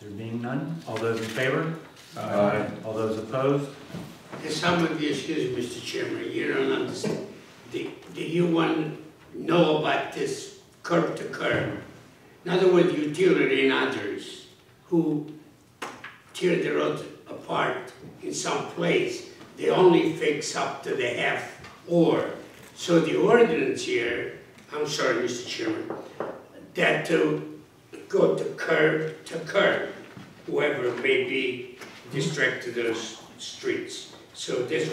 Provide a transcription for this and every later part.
There being none, all those in favor? Aye. All those opposed? Yes, some of you, excuse me, Mr. Chairman, you don't understand. Do, do you want to know about this curb to curb? In other words, utility and others who tear the roads apart in some place, they only fix up to the half or. So the ordinance here, I'm sorry, Mr. Chairman, that to go to curb to curb, whoever may be distracted those streets. So this,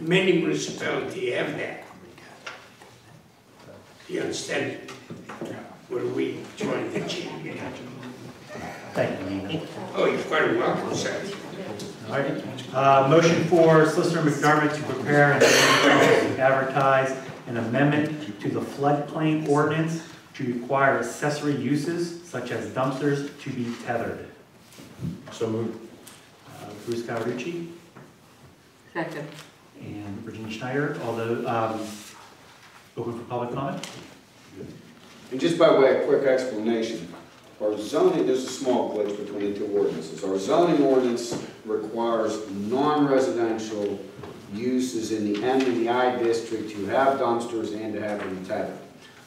many municipalities have that. You understand? Where we join the change. Thank you, Nina. Oh, you're quite welcome, sir. All right, Uh, motion for Solicitor McDermott to prepare and advertise an amendment to the floodplain ordinance to require accessory uses such as dumpsters to be tethered. So moved. Uh, Bruce Cawerucci Second. and Virginia Schneider, although, um, open for public comment? And just by way of quick explanation, our zoning, there's a small glitch between the two ordinances. Our zoning ordinance requires non-residential uses in the M and the I district to have dumpsters and to have them tethered.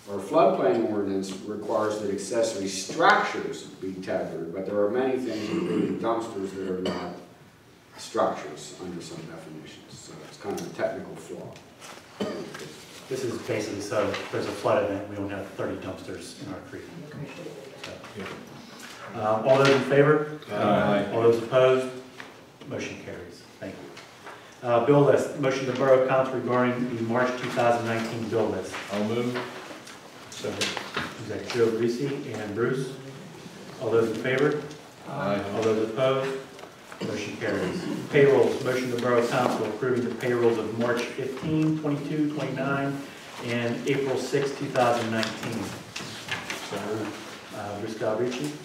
Our floodplain ordinance requires that accessory structures be tethered, but there are many things, including dumpsters, that are not structures under some definitions. So it's kind of a technical flaw. This is basically, so if there's a flood event, we don't have thirty dumpsters in our creek. So, uh, All those in favor? Aye. All those opposed? Motion carries. Thank you. Uh, Bill list, motion to Borough Council regarding the March 2019 bill list. I'll move. Second. Is that Joe Greasy and Bruce? All those in favor? Aye. All those opposed? Motion carries. Payrolls, motion to Borough Council approving the payrolls of March 15, 22, 29, and April 6, 2019. So moved. Uh, Bruce Galbraith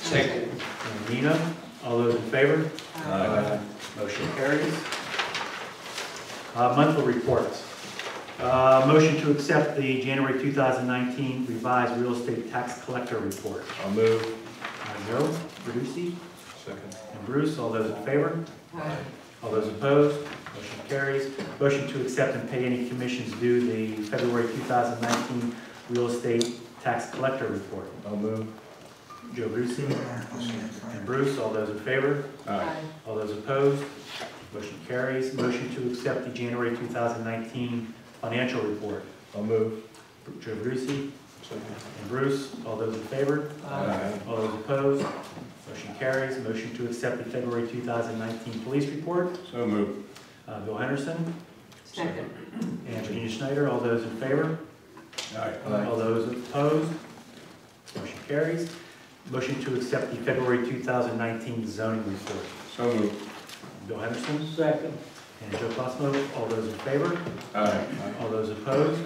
Second. and Nina, all those in favor? Aye. Motion carries. Uh, Monthly reports. Uh, Motion to accept the January 2019 revised real estate tax collector report. I'll move. Uh, Joe, Verducci, Second. and Bruce, all those in favor? All those opposed? Motion carries. Motion to accept and pay any commissions due the February 2019 real estate tax collector report. I'll move. Joe Verducci and Bruce, all those in favor? Aye. All those opposed? Motion carries. Motion to accept the January 2019 financial report. I'll move. Joe Brucey Second. and Bruce, all those in favor? Aye. All those opposed? Motion carries. Motion to accept the February 2019 police report. So moved. Uh, Bill Henderson Second. and Virginia Schneider, all those in favor? Aye. Uh, All those opposed? Motion carries. Motion to accept the February 2019 zoning report. So moved. Bill Henderson? Second. And Joe Cosmo, all those in favor? Aye. All those opposed?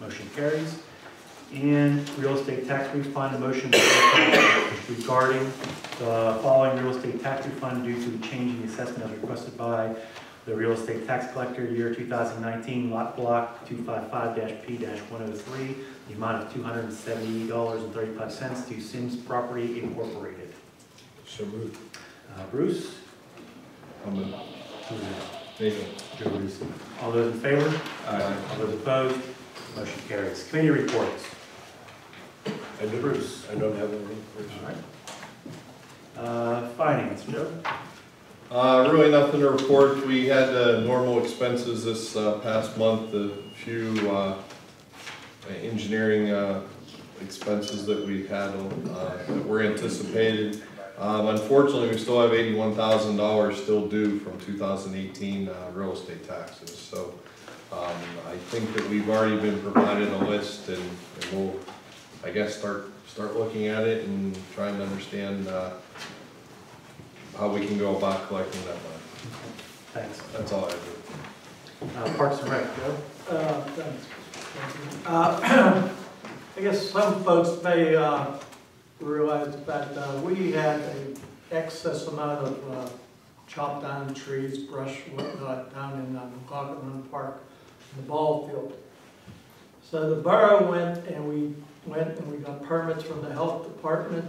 Motion carries. And real estate tax refund, a motion regarding the following real estate tax refund due to the change in the assessment as requested by the real estate tax collector, year 2019, lot block 255-P-103, the amount of $270.35 to Sims Property Incorporated. So moved. Uh, Bruce? I'll move. who's next? Nathan. Joe Bruce. All those in favor? Aye. All those opposed, motion carries. Committee reports. I do- Bruce. I don't have any. Uh, Finance, Joe? Uh, really nothing to report. We had, uh, normal expenses this, uh, past month, a few, uh, engineering, uh, expenses that we had, uh, that were anticipated. Um, unfortunately, we still have eighty-one thousand dollars still due from two thousand eighteen, uh, real estate taxes, so, um, I think that we've already been provided a list and, and we'll, I guess, start, start looking at it and trying to understand, uh, how we can go about collecting that money. Thanks. That's all I do. Uh, Parks and Rec, Joe? Uh, thanks. Uh, I guess some folks may uh, realize that uh, we had an excess amount of uh, chopped down trees, brush, whatnot, down in uh, McLaughlin Run Park, in the ball field. So the borough went and we went and we got permits from the health department